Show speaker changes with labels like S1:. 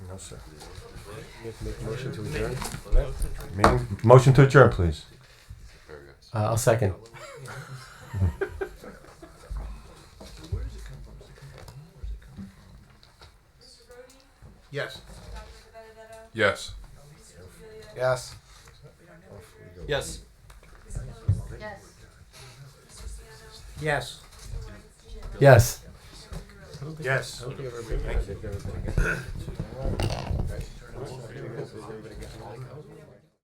S1: sir. Meeting- Motion to adjourn, please.
S2: Uh, I'll second.
S3: Yes.
S4: Yes.
S3: Yes.
S2: Yes.
S5: Yes.
S3: Yes.
S2: Yes.
S1: Yes.